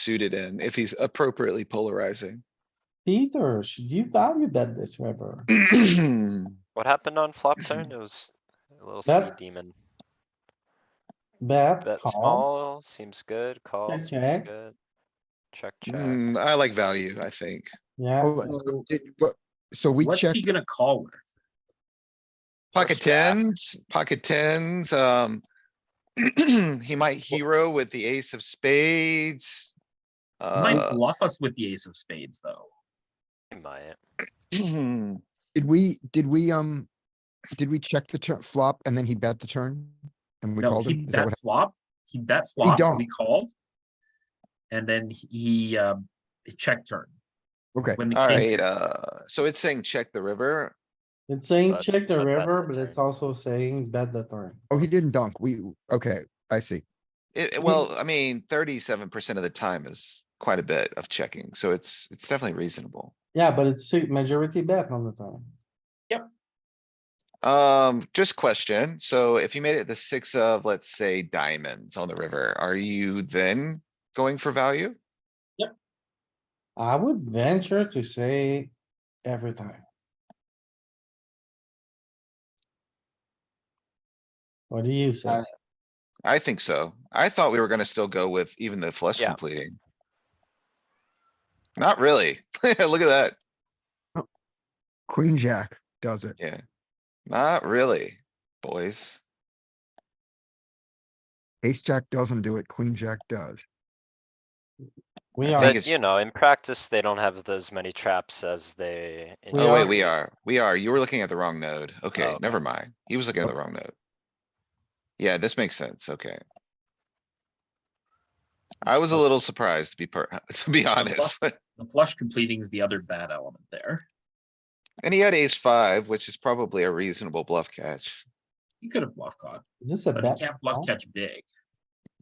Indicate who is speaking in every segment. Speaker 1: suited in, if he's appropriately polarizing.
Speaker 2: Peter, should you value bet this river?
Speaker 3: What happened on flop turn? It was a little skinny
Speaker 2: That's-
Speaker 3: demon.
Speaker 2: Bet,
Speaker 3: Bet
Speaker 2: call,
Speaker 3: small, seems good, call
Speaker 2: Check,
Speaker 3: seems
Speaker 2: check.
Speaker 3: good. Check, check.
Speaker 1: Mm, I like value, I think.
Speaker 2: yeah,
Speaker 4: Oh,
Speaker 2: so-
Speaker 4: Did, what, so we
Speaker 5: What's he
Speaker 4: checked,
Speaker 5: gonna call with?
Speaker 1: Pocket
Speaker 3: jack.
Speaker 1: tens, pocket tens, um. He might hero with the ace of spades.
Speaker 5: He Might
Speaker 1: Uh,
Speaker 5: bluff us with the ace of spades, though.
Speaker 3: He might.
Speaker 4: did we, did we, um, did we check the turn flop and then he bet the turn? And we
Speaker 5: No,
Speaker 4: called
Speaker 5: he
Speaker 4: him? Is that what
Speaker 5: bet flop, he bet flop,
Speaker 4: don't.
Speaker 5: we called. And then he, um, he checked turn.
Speaker 4: Okay.
Speaker 5: When the king,
Speaker 1: Alright, uh, so it's saying check the river.
Speaker 2: it's saying
Speaker 3: But-
Speaker 2: check the
Speaker 3: but bet
Speaker 2: river,
Speaker 3: the
Speaker 2: but it's
Speaker 3: turn.
Speaker 2: also saying bet the turn.
Speaker 4: hap- Oh, he didn't dunk. We, okay, I see.
Speaker 1: It, it- well, I mean, thirty-seven percent of the time is quite a bit of checking, so it's, it's definitely reasonable.
Speaker 2: Yeah, but it's a majority bet on the turn.
Speaker 1: Um, just question, so if you made it the six of, let's say diamonds on the river, are you then going for value?
Speaker 2: I would venture to say every time. What do you say?
Speaker 1: Uh, I think so. I thought we were gonna still go with even the flush
Speaker 3: Yeah.
Speaker 1: completing. Not really. Look at that.
Speaker 4: Queen jack does it.
Speaker 1: Yeah. Not really, boys.
Speaker 4: Ace jack doesn't do it. Queen jack does.
Speaker 2: We
Speaker 1: I
Speaker 2: are,
Speaker 1: think
Speaker 3: But you
Speaker 1: it's-
Speaker 3: know, in practice, they don't have as many traps as they. in
Speaker 2: We
Speaker 1: Oh wait,
Speaker 2: are. Oh.
Speaker 1: we
Speaker 3: theory.
Speaker 1: are, we are. You were looking at the wrong node. Okay,
Speaker 3: okay.
Speaker 1: never mind. He was looking at the wrong node. Yeah, this makes sense. Okay. I was a little surprised to be per, to be honest, but-
Speaker 5: the flush completing is the other bad element there.
Speaker 1: and he had ace five, which is probably a reasonable bluff catch.
Speaker 5: He could have bluff caught,
Speaker 2: is this a
Speaker 5: but he
Speaker 2: bet?
Speaker 5: can't bluff
Speaker 2: call?
Speaker 5: catch big.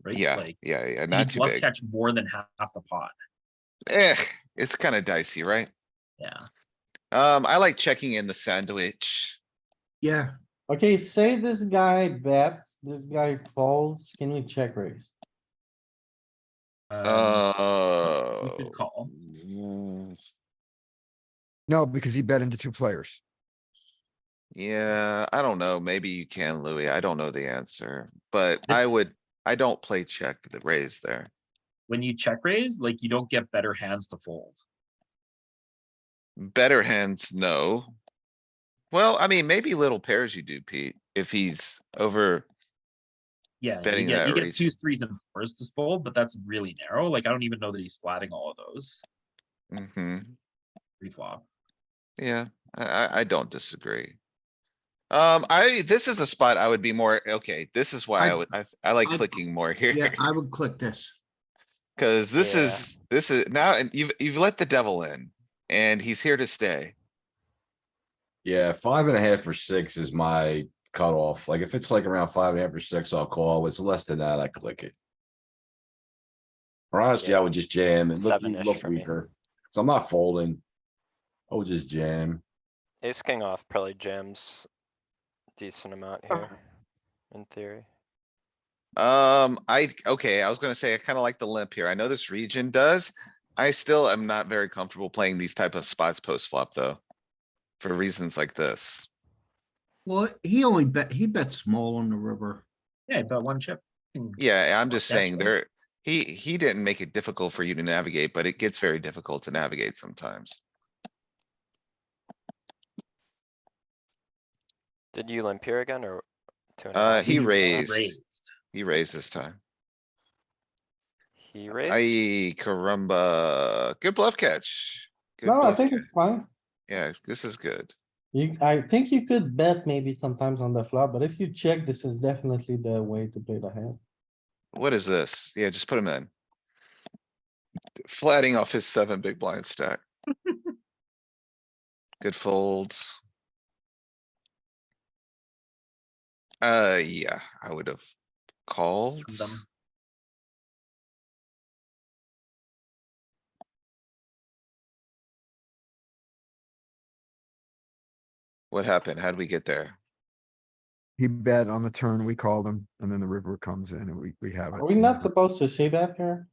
Speaker 5: Right,
Speaker 1: Yeah,
Speaker 5: like,
Speaker 1: yeah, yeah,
Speaker 5: he
Speaker 1: not too
Speaker 5: bluff
Speaker 1: big.
Speaker 5: catch more than half the pot,
Speaker 1: Eh, it's kinda dicey, right?
Speaker 5: yeah.
Speaker 1: Um, I like checking in the sandwich.
Speaker 4: Yeah.
Speaker 2: Okay, say this guy bets, this guy folds, can we check raise?
Speaker 5: Um,
Speaker 1: Oh.
Speaker 5: could call.
Speaker 1: Mm,
Speaker 4: No, because he bet into two players.
Speaker 1: Yeah, I don't know. Maybe you can, Louis. I don't know the answer, but I
Speaker 5: This-
Speaker 1: would, I don't play check the raise there.
Speaker 5: When you check raise, like, you don't get better hands to fold.
Speaker 1: Better hands, no. Well, I mean, maybe little pairs you do, Pete, if he's over.
Speaker 5: Yeah, you
Speaker 1: Betting
Speaker 5: get,
Speaker 1: that
Speaker 5: you get
Speaker 1: raise.
Speaker 5: twos, threes and fours to fold, but that's really narrow. Like, I don't even know that he's flatting all of those
Speaker 1: hmm
Speaker 5: pre-flop.
Speaker 1: Yeah, I, I, I don't disagree. Um, I, this is the spot I would be more, okay, this is why I would, I, I like clicking more here,
Speaker 6: I would click this.
Speaker 1: cuz this
Speaker 3: Yeah.
Speaker 1: is, this is now, and you've, you've let the devil in. And he's here to stay.
Speaker 7: Yeah, five and a half or six is my cutoff. Like if it's like around five and a half or six, I'll call. If it's less than that, I click it. Or honestly, I would just jam and look,
Speaker 3: Seven-ish
Speaker 7: look
Speaker 3: for me.
Speaker 7: weaker. So I'm not folding. I would just jam.
Speaker 3: Ace king off probably jams decent amount here, in theory.
Speaker 1: Um, I, okay, I was gonna say, I kinda like the limp here. I know this region does. I still am not very comfortable playing these type of spots post flop, though. For reasons like this.
Speaker 6: Well, he only bet, he bet small on the river.
Speaker 5: Yeah, but one chip. Hmm.
Speaker 1: Yeah, I'm
Speaker 5: Well,
Speaker 1: just saying
Speaker 5: naturally.
Speaker 1: there, he, he didn't make it difficult for you to navigate, but it gets very difficult to navigate sometimes.
Speaker 3: Did you limp here again or? two and a
Speaker 1: Uh,
Speaker 3: half?
Speaker 1: he
Speaker 5: uh,
Speaker 1: raised, he raised this time.
Speaker 3: He raised?
Speaker 1: Aye, caramba. Good bluff catch. Good
Speaker 2: No, I
Speaker 1: bluff
Speaker 2: think
Speaker 1: catch.
Speaker 2: it's fine.
Speaker 1: Yeah, this is good.
Speaker 2: You, I think you could bet maybe sometimes on the flop, but if you check, this is definitely the way to play the hand.
Speaker 1: What is this? Yeah, just put him in. Flatting off his seven big blind stack. Good folds. Uh, yeah, I would have called.
Speaker 5: Dumb.
Speaker 1: What happened? How'd we get there?
Speaker 4: He bet on the turn. We called him and then the river comes in and we, we have it.
Speaker 2: Are we not supposed to say that here?